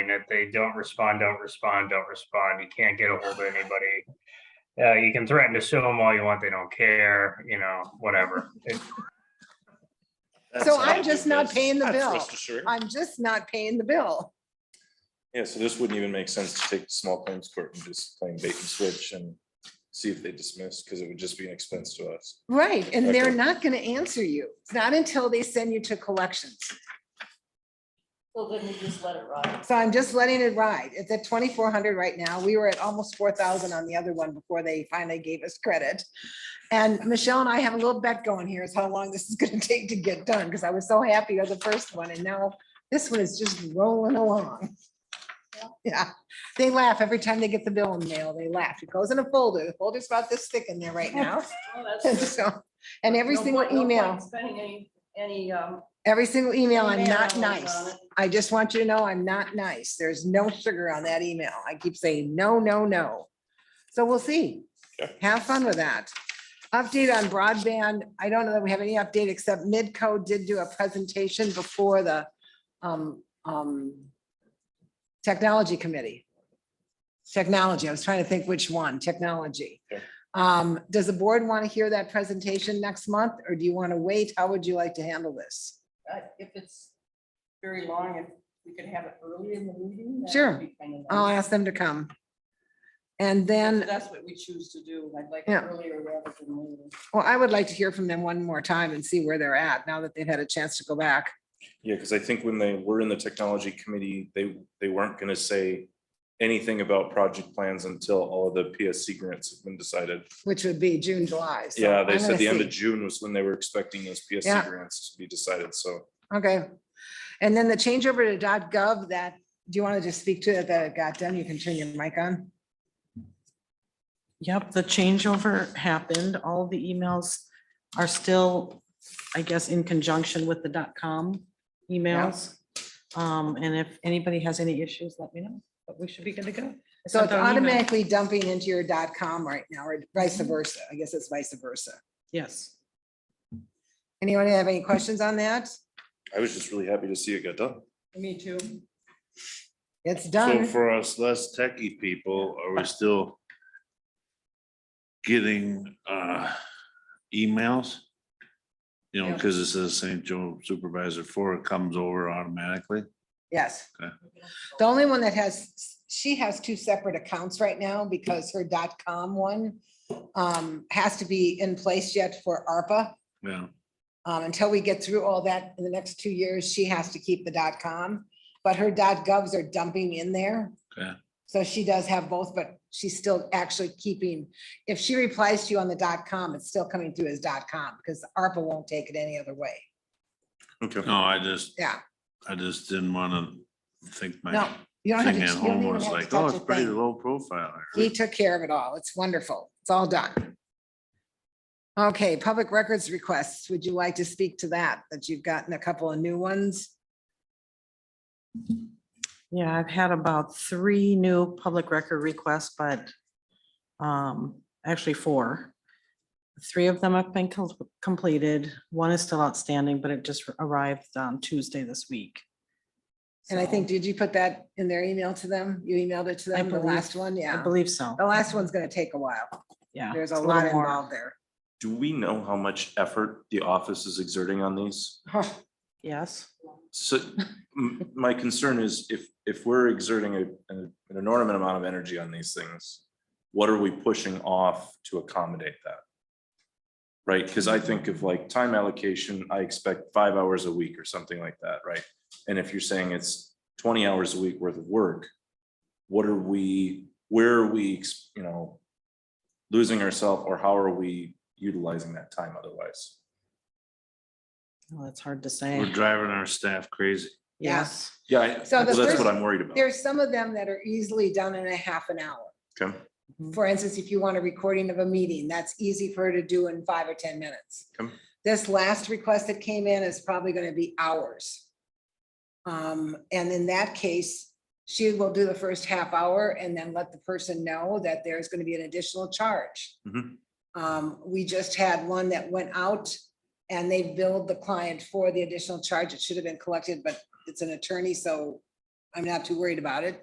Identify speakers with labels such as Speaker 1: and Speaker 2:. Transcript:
Speaker 1: and if they don't respond, don't respond, don't respond, you can't get a hold of anybody. Uh, you can threaten to sue them all you want, they don't care, you know, whatever. It-
Speaker 2: That
Speaker 3: So
Speaker 2: sounds
Speaker 3: I'm
Speaker 2: like
Speaker 3: just not
Speaker 2: this.
Speaker 3: paying the
Speaker 2: That's
Speaker 3: bill.
Speaker 2: Mr. Sure.
Speaker 3: I'm just not paying the bill.
Speaker 4: Yeah, so this wouldn't even make sense to take the small claims court and just claim bait and switch and see if they dismiss, because it would just be an expense to us.
Speaker 3: Right, and they're
Speaker 4: Okay.
Speaker 3: not gonna answer you. It's not until they send you to collections.
Speaker 5: Well, then we just let it ride.
Speaker 3: So I'm just letting it ride. It's at twenty-four hundred right now. We were at almost four thousand on the other one before they finally gave us credit. And Michelle and I have a little bet going here is how long this is gonna take to get done, because I was so happy with the first one, and now this one is just rolling along. Yeah, they laugh every time they get the bill in the mail. They laugh. It goes in a folder. The folder's about this thick in there right now.
Speaker 5: Well, Oh, that's
Speaker 3: And
Speaker 5: good.
Speaker 3: so- and every
Speaker 5: No
Speaker 3: single
Speaker 5: point- no point
Speaker 3: email.
Speaker 5: Spending any, any, um,
Speaker 3: Every single email, I'm
Speaker 5: Email
Speaker 3: not
Speaker 5: is on
Speaker 3: nice.
Speaker 5: it. Uh,
Speaker 3: I just want you to know I'm not nice. There's no sugar on that email. I keep saying, no, no, no. So we'll see.
Speaker 4: Yeah.
Speaker 3: Have fun with that. Update on broadband. I don't know that we have any update except Midco did do a presentation before the um, um, technology committee. Technology, I was trying to think which one, technology.
Speaker 4: Yeah.
Speaker 3: Um, does the board want to hear that presentation next month or do you want to wait? How would you like to handle this?
Speaker 5: uh, if it's very long, if we could have it early in the meeting. that would
Speaker 3: Sure.
Speaker 5: be kind of
Speaker 3: I'll
Speaker 5: nice.
Speaker 3: ask them to come. And
Speaker 5: So
Speaker 3: then,
Speaker 5: That's what we choose to do. I'd like it
Speaker 3: Yeah.
Speaker 5: earlier rather than later.
Speaker 3: well, I would like to hear from them one more time and see where they're at now that they've had a chance to go back.
Speaker 4: Yeah, because I think when they were in the technology committee, they, they weren't gonna say anything about project plans until all of the PSC grants have been decided.
Speaker 3: Which would be June, July. so
Speaker 4: Yeah, they
Speaker 3: I'm
Speaker 4: said
Speaker 3: gonna
Speaker 4: the end of
Speaker 3: see.
Speaker 4: June was when they were expecting those PSC
Speaker 3: Yeah.
Speaker 4: grants to be decided, so.
Speaker 3: Okay. And then the changeover to gov that, do you want to just speak to it that it got done? You can turn your mic on.
Speaker 6: Yep, the changeover happened. All the emails are still, I guess, in conjunction with the dot com emails. Um, and if anybody has any issues, let me know, but we should be good to go. I
Speaker 3: So
Speaker 6: sent
Speaker 3: it's
Speaker 6: out an email.
Speaker 3: automatically dumping into your dot com right now or vice versa. I guess it's vice versa.
Speaker 6: Yes.
Speaker 3: Anyone have any questions on that?
Speaker 4: I was just really happy to see it got done.
Speaker 5: Me too.
Speaker 3: It's
Speaker 2: So
Speaker 3: done.
Speaker 2: for us less techie people, are we still getting uh emails? You know,
Speaker 3: Yeah.
Speaker 2: because it says St. Joe Supervisor Four it comes over automatically.
Speaker 3: Yes.
Speaker 2: Okay.
Speaker 3: The only one that has, she has two separate accounts right now because her dot com one um, has to be in place yet for ARPA.
Speaker 2: Yeah,
Speaker 3: Um, until we get through all that in the next two years, she has to keep the dot com, but her dot govs are dumping in there.
Speaker 2: Okay.
Speaker 3: So she does have both, but she's still actually keeping, if she replies to you on the dot com, it's still coming through as dot com because ARPA won't take it any other way.
Speaker 4: Okay.
Speaker 2: no, I just,
Speaker 3: Yeah,
Speaker 2: I just didn't wanna think
Speaker 3: no,
Speaker 2: my
Speaker 3: you don't have to.
Speaker 2: thing
Speaker 3: you
Speaker 2: at
Speaker 3: don't
Speaker 2: home
Speaker 3: even
Speaker 2: was
Speaker 3: have to
Speaker 2: like,
Speaker 3: touch
Speaker 2: oh,
Speaker 3: a
Speaker 2: it's pretty
Speaker 3: thing.
Speaker 2: low profile.
Speaker 3: He took care of it all. It's wonderful. It's all done. Okay, public records requests. Would you like to speak to that? That you've gotten a couple of new ones?
Speaker 6: Yeah, I've had about three new public record requests, but um, actually four. Three of them have been com- completed. One is still outstanding, but it just arrived on Tuesday this week.
Speaker 3: And I
Speaker 6: So,
Speaker 3: think, did you put that in their email to them? You emailed it to
Speaker 6: I
Speaker 3: them, the
Speaker 6: believe-
Speaker 3: last one?
Speaker 6: I
Speaker 3: Yeah.
Speaker 6: believe so.
Speaker 3: The last one's gonna take a while.
Speaker 6: Yeah.
Speaker 3: There's a
Speaker 6: it's
Speaker 3: lot
Speaker 6: little more.
Speaker 3: involved there.
Speaker 4: Do we know how much effort the office is exerting on these?
Speaker 6: Yes.
Speaker 4: So m- my concern is if, if we're exerting a- an an enormous amount of energy on these things, what are we pushing off to accommodate that? Right? Because I think of like time allocation, I expect five hours a week or something like that, right? And if you're saying it's twenty hours a week worth of work, what are we, where are we, ex- you know, losing ourselves or how are we utilizing that time otherwise?
Speaker 6: Well, that's hard to
Speaker 2: We're
Speaker 6: say.
Speaker 2: driving our staff crazy.
Speaker 3: Yeah.
Speaker 6: Yes.
Speaker 4: Yeah, I-
Speaker 3: So the
Speaker 4: well, that's
Speaker 3: first-
Speaker 4: what I'm worried about.
Speaker 3: There's some of them that are easily done in a half an hour.
Speaker 4: Okay.
Speaker 6: Mhm.
Speaker 3: For instance, if you want a recording of a meeting, that's easy for her to do in five or ten minutes.
Speaker 4: Okay.
Speaker 3: This last request that came in is probably gonna be hours. Um, and in that case, she will do the first half hour and then let the person know that there's gonna be an additional charge.
Speaker 4: Mhm.
Speaker 3: Um, we just had one that went out and they billed the client for the additional charge. It should have been collected, but it's an attorney, so I'm not too worried about it.